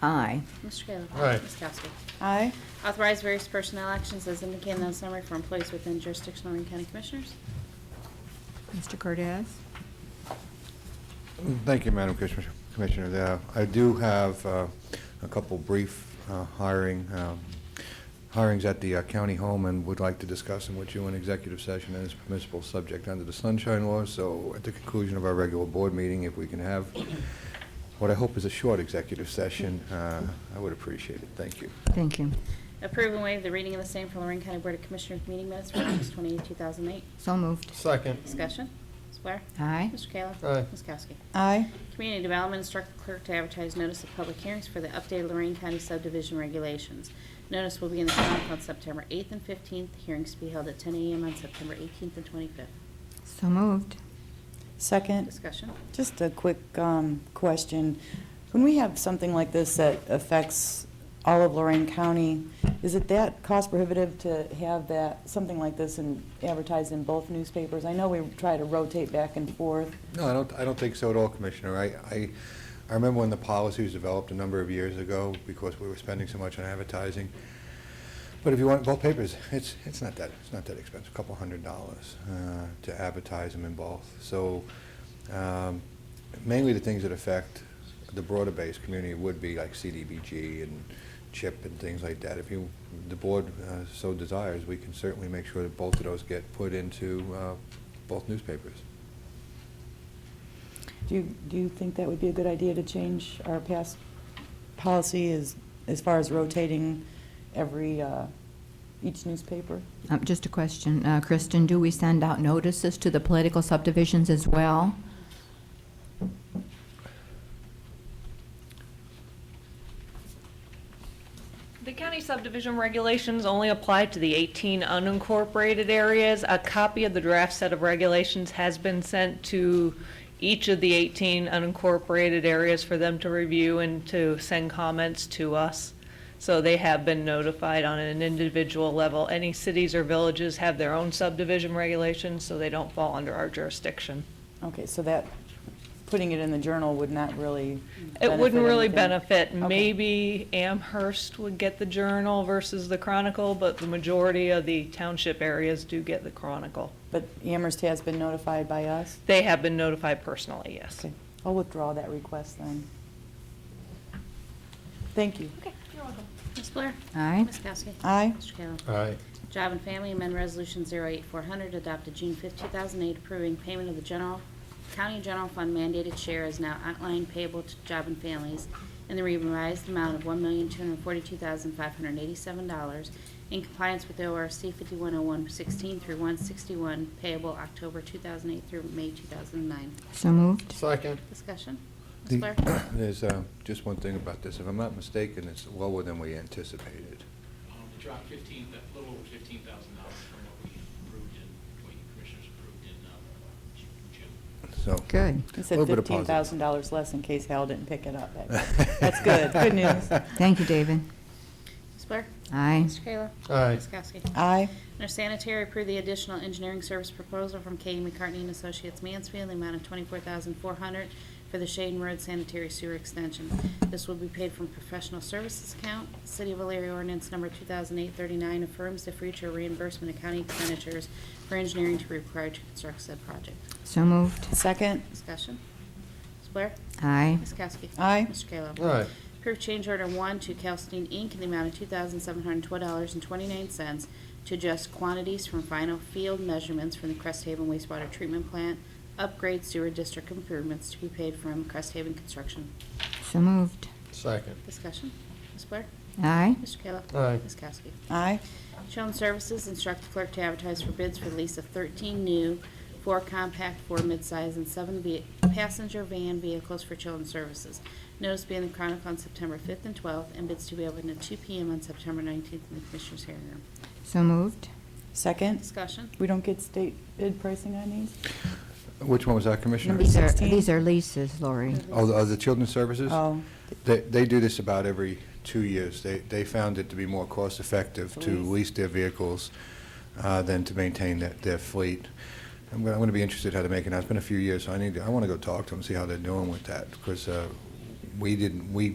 Aye. Mr. Kayla. Aye. Ms. Kowski. Aye. Authorize various personnel actions as indicated in the summary for employees within jurisdiction of Lorraine County Commissioners. Mr. Cordez? Thank you, Madam Commissioner- Commissioner. Uh, I do have uh, a couple brief uh, hiring, um, hirings at the uh, county home and would like to discuss them with you in executive session as permissible subject under the Sunshine Law. So at the conclusion of our regular board meeting, if we can have what I hope is a short executive session, uh, I would appreciate it. Thank you. Thank you. Approve and waive the reading of the same for Lorraine County Board of Commissioners meeting minutes for August 28, 2008. So moved. Second. Discussion. Ms. Blair. Aye. Mr. Kayla. Aye. Ms. Kowski. Aye. Community Development instruct the clerk to advertise notice of public hearings for the updated Lorraine County subdivision regulations. Notice will be in the Chronicle on September 8th and 15th. Hearings to be held at 10 a.m. on September 18th and 25th. So moved. Second. Discussion. Just a quick um, question. When we have something like this that affects all of Lorraine County, is it that cost prohibitive to have that, something like this and advertised in both newspapers? I know we try to rotate back and forth. No, I don't, I don't think so at all, Commissioner. I, I, I remember when the policy was developed a number of years ago, because we were spending so much on advertising. But if you want both papers, it's, it's not that, it's not that expensive, a couple hundred dollars, uh, to advertise them in both. So, um, mainly the things that affect the broader base community would be like CDBG and CHIP and things like that. If you, the board uh, so desires, we can certainly make sure that both of those get put into, uh, both newspapers. Do you, do you think that would be a good idea to change our past policy as, as far as rotating every, uh, each newspaper? Um, Just a question. Uh, Kristen, do we send out notices to the political subdivisions as well? The county subdivision regulations only apply to the 18 unincorporated areas. A copy of the draft set of regulations has been sent to each of the 18 unincorporated areas for them to review and to send comments to us. So they have been notified on an individual level. Any cities or villages have their own subdivision regulations, so they don't fall under our jurisdiction. Okay, so that, putting it in the journal would not really It wouldn't really anything. benefit. Okay. Maybe Amherst would get the Journal versus the Chronicle, but the majority of the township areas do get the Chronicle. But Amherst has been notified by us? They have been notified personally, yes. Okay, I'll withdraw that request then. Thank you. Ms. Blair. Aye. Ms. Kowski. Aye. Mr. Kayla. Aye. Job and Family Amendment Resolution 08400 adopted June 5, 2008, approving payment of the general, county general fund mandated share is now outlined payable to Job and Families in the revised amount of $1,242,587 in compliance with ORC 510116 through 161 payable October 2008 through May 2009. So moved. Second. Discussion? Ms. Blair? The- There's uh, just one thing about this. If I'm not mistaken, it's lower than we anticipated. Um, We dropped fifteen, a little over fifteen thousand dollars from what we approved in, what you commissioners approved in um, Ju- June. So. Good. You a said little bit of positive. $15,000 less in case Hal didn't pick it up. That's good, good news. Thank you, David. Ms. Blair? Aye. Mr. Kayla? Aye. Ms. Kowski? Aye. Under sanitary, approve the additional engineering service proposal from K. E McCartney and Associates Mansfield, in the amount of twenty-four thousand four hundred for the Shaden Road Sanitary Sewer Extension. This will be paid from professional services account. City of Alariah ordinance number 2008-39 affirms the future reimbursement of county expenditures for engineering to be required to construct said project. So moved. Second. Discussion. Ms. Blair? Aye. Ms. Kowski? Aye. Mr. Kayla? Aye. Approve change order one to Calstein Inc. in the amount of two thousand seven hundred twelve dollars and twenty-nine cents to adjust quantities from final field measurements from the Cresthaven wastewater treatment plant, upgrade sewer district improvements to be paid from Cresthaven Construction. So moved. Second. Discussion, Ms. Blair? Aye. Mr. Kayla? Aye. Ms. Kowski? Aye. Children Services instruct the clerk to advertise for bids for the lease of 13 new, four compact, four midsize, and seven ve- passenger van vehicles for Children Services. Notice being in the Chronicle on September 5th and 12th, and bids to be opened at 2 PM on September 19th in the Commissioners' hearing room. So moved. Second. Discussion? We don't get state bid pricing on these? Which one was that, Commissioner? Number These are, 16. these are leases, Lori. Oh, the- oh, the Children's Services? Oh, They, they do this about every two years. They, they found it to be more cost-effective to Lease. lease their vehicles uh, than to maintain their, their fleet. I'm going, I'm going to be interested how to make it now. It's been a few years, so I need, to- I want to go talk to them, see how they're doing with that, because uh, we didn't, we